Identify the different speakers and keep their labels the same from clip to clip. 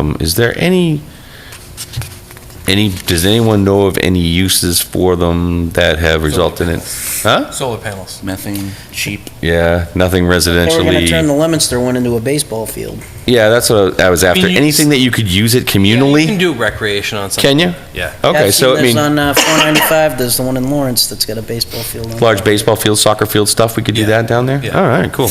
Speaker 1: Um, Is there any, any, does anyone know of any uses for them that have resulted in? Huh?
Speaker 2: Solar panels.
Speaker 3: Methane, sheep.
Speaker 1: Yeah, nothing
Speaker 4: They were gonna turn
Speaker 1: residentially.
Speaker 4: the Lemonster one into a baseball field.
Speaker 1: Yeah, that's what I was after.
Speaker 2: mean, you-
Speaker 1: Anything that you could use it
Speaker 2: You can
Speaker 1: communally?
Speaker 2: do recreation on
Speaker 1: Can
Speaker 2: something.
Speaker 1: you?
Speaker 2: Yeah.
Speaker 1: Okay,
Speaker 4: I've
Speaker 1: so
Speaker 4: seen
Speaker 1: I
Speaker 4: those
Speaker 1: mean,
Speaker 4: On uh, 495, there's the one in Lawrence that's got a baseball field on it.
Speaker 1: large baseball field, soccer field stuff, we could do
Speaker 2: Yeah.
Speaker 1: that down there?
Speaker 2: Yeah.
Speaker 1: All right, cool.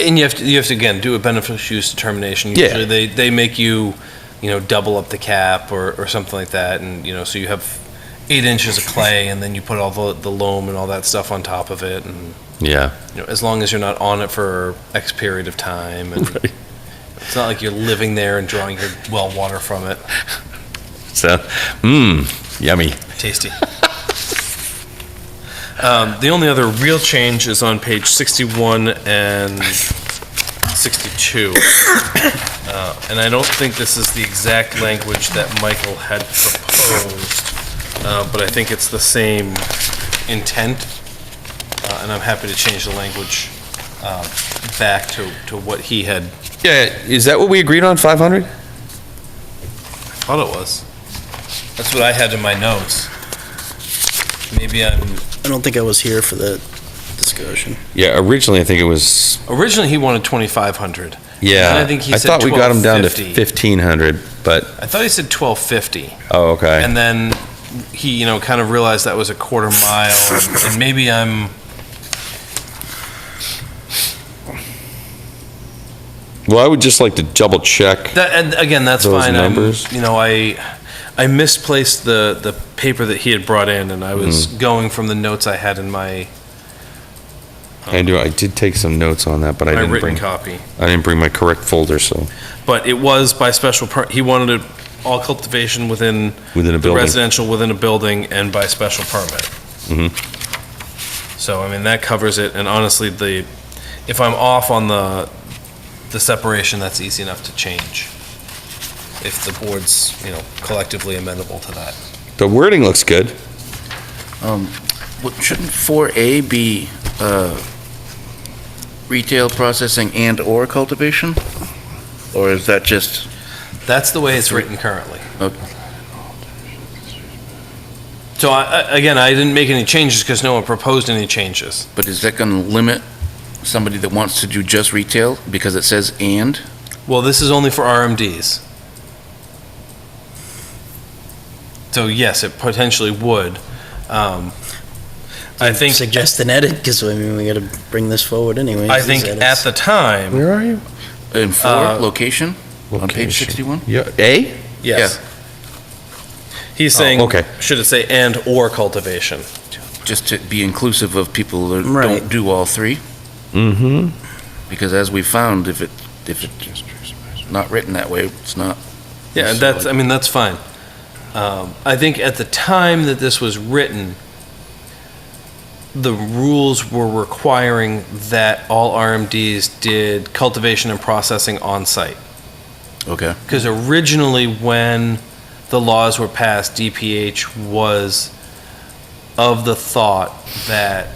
Speaker 2: And you have to, you have to, again, do a beneficial use determination.
Speaker 1: Yeah.
Speaker 2: Usually they, they make you, you know, double up the cap or, or something like that. And, you know, so you have eight inches of clay and then you put all the, the loam and all that stuff on top of it. And,
Speaker 1: Yeah.
Speaker 2: you know, as long as you're not on it for X period of time and
Speaker 1: Right.
Speaker 2: it's not like you're living there and drawing your well water from it.
Speaker 1: So, mmm, yummy.
Speaker 2: Tasty. um, the only other real change is on page 61 and 62. Uh, and I don't think this is the exact language that Michael had proposed, uh, but I think it's the same intent. Uh, and I'm happy to change the language uh, back to, to what he had
Speaker 1: Yeah, is that what we agreed on, 500?
Speaker 2: thought it was. That's what I had in my notes. Maybe I'm
Speaker 4: I don't think I was here for the discussion.
Speaker 1: Yeah, originally I think it was,
Speaker 2: Originally, he wanted twenty-five hundred.
Speaker 1: yeah.
Speaker 2: I think he said
Speaker 1: thought we got them down to
Speaker 2: 1250.
Speaker 1: 1,500, but,
Speaker 2: I thought he said twelve fifty,
Speaker 1: oh, okay.
Speaker 2: and then he, you know, kind of realized that was a quarter mile, and, and maybe I'm.
Speaker 1: Well, I would just like to double check.
Speaker 2: That, and again, that's
Speaker 1: Those
Speaker 2: fine. I'm-
Speaker 1: numbers?
Speaker 2: You know, I, I misplaced the the paper that he had brought in, and I was
Speaker 1: Mm-hmm.
Speaker 2: going from the notes I had in my
Speaker 1: I do, I did take some notes on that, but I
Speaker 2: my
Speaker 1: didn't
Speaker 2: written
Speaker 1: bring,
Speaker 2: copy.
Speaker 1: I didn't bring my correct folder, so,
Speaker 2: But it was by special. Per, he wanted it all cultivation within
Speaker 1: within a
Speaker 2: the
Speaker 1: building.
Speaker 2: residential within a building and by special permit. So, I mean, that covers it, and honestly, the, if I'm off on the, the separation, that's easy enough to change. If the board's, you know, collectively amenable to that.
Speaker 1: The wording looks good.
Speaker 3: Um, what- Shouldn't 4A be uh, retail processing and/or cultivation? Or is that just,
Speaker 2: That's the way it's written currently.
Speaker 3: Okay.
Speaker 2: So I, I- again, I didn't make any changes because no one proposed any changes.
Speaker 3: but is that going to limit somebody that wants to do just retail because it says and?
Speaker 2: Well, this is only for RMDs. So yes, it potentially would. Um, I think.
Speaker 4: Suggest an edit, because I mean, we gotta bring this forward anyway.
Speaker 2: I think at the time,
Speaker 1: Where are you?
Speaker 3: In
Speaker 2: Uh,
Speaker 3: four, location, on page 61?
Speaker 1: Yeah, A?
Speaker 2: yes. He's saying,
Speaker 1: Oh, okay.
Speaker 2: should it say and or cultivation?
Speaker 3: Just to be inclusive of people that
Speaker 4: Right.
Speaker 3: don't do all three?
Speaker 1: Mm-hmm.
Speaker 3: Because as we found, if it, if it's not written that way, it's not.
Speaker 2: Yeah,
Speaker 3: So,
Speaker 2: that's, I mean, that's fine. Um, I think at the time that this was written, the rules were requiring that all RMDs did cultivation and processing on site.
Speaker 3: Okay,
Speaker 2: Because originally, when the laws were passed, DPH was of the thought that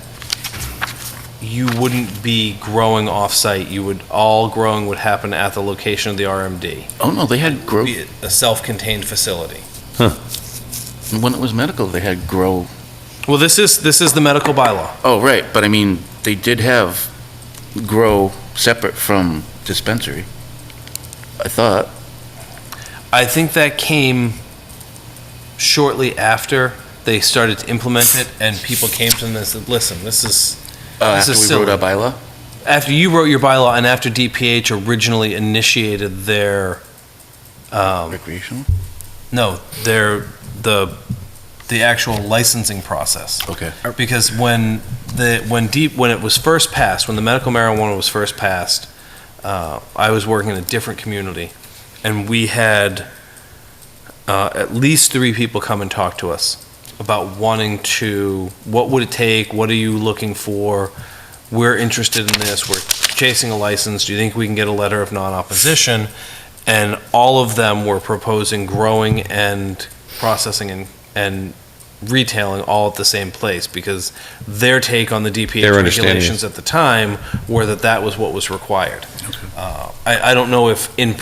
Speaker 2: you wouldn't be growing off-site, you would, all growing would happen at the location of the RMD.
Speaker 3: oh no, they had grow,
Speaker 2: Be A self-contained facility.
Speaker 3: when it was medical, they had grow
Speaker 2: Well, this is, this is the medical bylaw.
Speaker 3: Oh, right, but I mean, they did have grow separate from dispensary. I thought,
Speaker 2: I think that came shortly after they started to implement it, and people came to them and said, listen, this is,
Speaker 3: uh,
Speaker 2: This Oh,
Speaker 3: after
Speaker 2: is
Speaker 3: we wrote our bylaw.
Speaker 2: after you wrote your bylaw and after DPH originally initiated their, um,
Speaker 3: Recreational?
Speaker 2: no, their, the, the actual licensing process.
Speaker 3: Okay.
Speaker 2: Because when the, when deep, when it was first passed, when the medical marijuana was first passed, uh, I was working in a different community and we had, uh, at least three people come and talk to us about wanting to, what would it take? What are you looking for? We're interested in this. We're chasing a license. Do you think we can get a letter of non-opposition? And all of them were proposing growing and processing and, and retailing all at the same place because their take on the
Speaker 1: Their
Speaker 2: DPH
Speaker 1: understanding is-
Speaker 2: regulations at the time were that that was what was required. Uh, I, I don't know if in